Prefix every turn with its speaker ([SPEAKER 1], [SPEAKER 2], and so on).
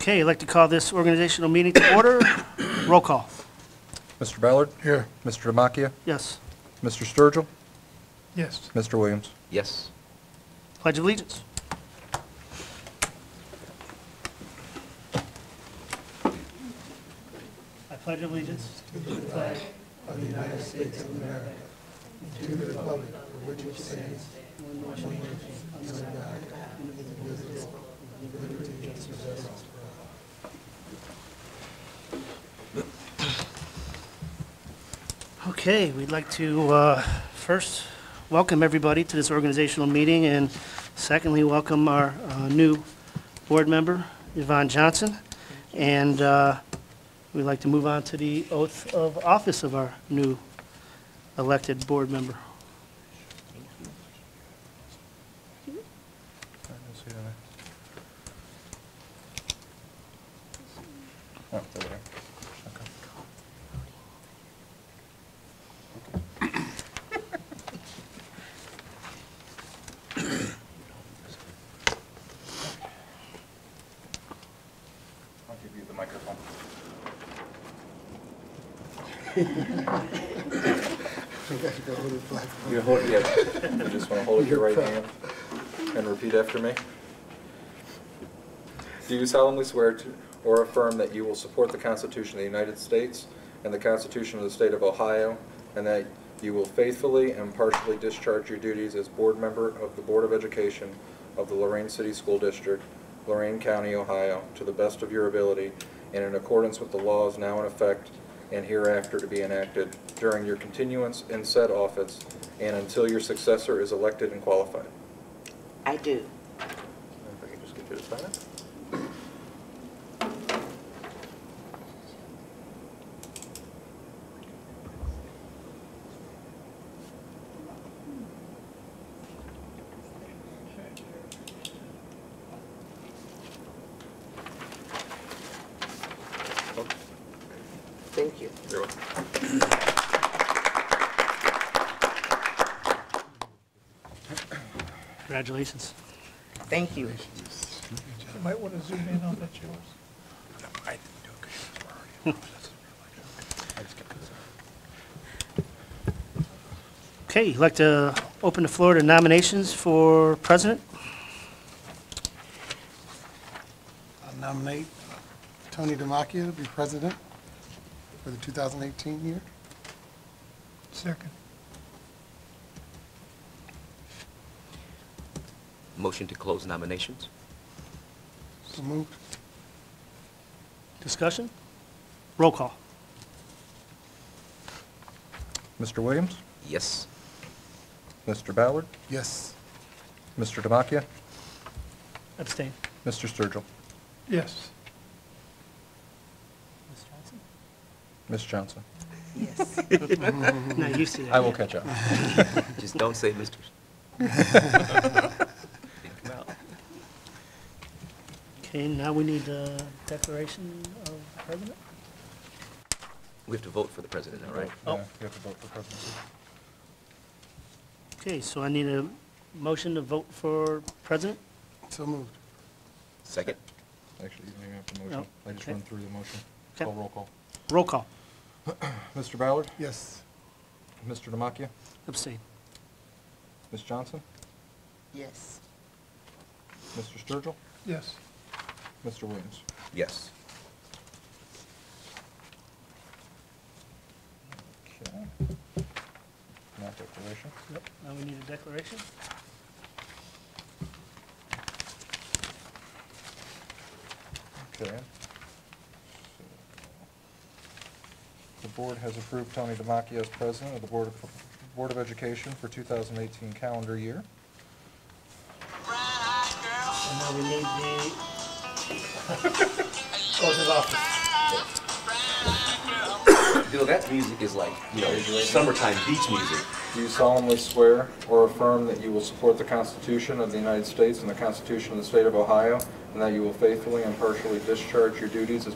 [SPEAKER 1] Okay, I'd like to call this organizational meeting to order. Roll call.
[SPEAKER 2] Mr. Ballard?
[SPEAKER 3] Here.
[SPEAKER 2] Mr. Demakia?
[SPEAKER 1] Yes.
[SPEAKER 2] Mr. Sturgill?
[SPEAKER 3] Yes.
[SPEAKER 2] Mr. Williams?
[SPEAKER 4] Yes.
[SPEAKER 1] Pledge of Allegiance. I pledge allegiance to the flag Okay, we'd like to uh, first welcome everybody to this organizational meeting, and secondly, welcome our uh, new board member, Yvonne Johnson. And uh, we'd like to move on to the oath of office of our new elected board member.
[SPEAKER 2] Oh, it's over there. Okay. I'll give you the microphone. You hold, yeah, you just want to hold your right hand and repeat after me. Do you solemnly swear to, or affirm that you will support the Constitution of the United States and the Constitution of the State of Ohio, and that you will faithfully and impartially discharge your duties as board member of the Board of Education of the Lorraine City School District, Lorraine County, Ohio, to the best of your ability and in accordance with the laws now in effect and hereafter to be enacted during your continuance in said office and until your successor is elected and qualified?
[SPEAKER 5] I do.
[SPEAKER 2] If I can just get you to sign it.
[SPEAKER 5] Thank you.
[SPEAKER 2] You're welcome.
[SPEAKER 1] Congratulations.
[SPEAKER 5] Thank you.
[SPEAKER 3] You might want to zoom in on that yours. I didn't do it
[SPEAKER 1] Okay, I'd like to open the floor to nominations for president.
[SPEAKER 6] I nominate Tony Demakia to be president for the 2018 year.
[SPEAKER 3] Second.
[SPEAKER 4] Motion to close nominations?
[SPEAKER 6] So moved.
[SPEAKER 1] Discussion? Roll call.
[SPEAKER 2] Mr. Williams?
[SPEAKER 4] Yes.
[SPEAKER 2] Mr. Ballard?
[SPEAKER 6] Yes.
[SPEAKER 2] Mr. Demakia?
[SPEAKER 1] Abstain.
[SPEAKER 2] Mr. Sturgill?
[SPEAKER 3] Yes.
[SPEAKER 1] Ms. Johnson?
[SPEAKER 2] Ms. Johnson?
[SPEAKER 5] Yes.
[SPEAKER 1] Not used to that.
[SPEAKER 2] Mm-hmm. I will catch up.
[SPEAKER 4] Just don't say Mr.
[SPEAKER 1] Okay, now we need a declaration of president?
[SPEAKER 4] We have to vote for the president, all right?
[SPEAKER 1] Oh.
[SPEAKER 2] Yeah, You have to vote for presidency.
[SPEAKER 1] Okay, so I need a motion to vote for president?
[SPEAKER 6] So moved.
[SPEAKER 4] Second?
[SPEAKER 2] Actually, you don't even have to
[SPEAKER 1] No,
[SPEAKER 2] motion. I just
[SPEAKER 1] Oh, okay.
[SPEAKER 2] run through the motion.
[SPEAKER 1] Okay.
[SPEAKER 2] Call roll call.
[SPEAKER 1] Roll call.
[SPEAKER 2] Mr. Ballard?
[SPEAKER 6] Yes.
[SPEAKER 2] Mr. Demakia?
[SPEAKER 1] Abstain.
[SPEAKER 2] Ms. Johnson?
[SPEAKER 5] Yes.
[SPEAKER 2] Mr. Sturgill?
[SPEAKER 3] Yes.
[SPEAKER 2] Mr. Williams?
[SPEAKER 4] Yes.
[SPEAKER 2] Okay. Not declaration.
[SPEAKER 1] Yep, now we need a declaration?
[SPEAKER 2] Okay. So, The board has approved Tony Demakia as president of the Board of, Board of Education for 2018 calendar year.
[SPEAKER 1] And now we need the,
[SPEAKER 4] Bill, that music is like, you know, summertime beach music.
[SPEAKER 2] Do you solemnly swear or affirm that you will support the Constitution of the United States and the Constitution of the State of Ohio, and that you will faithfully and impartially discharge your duties as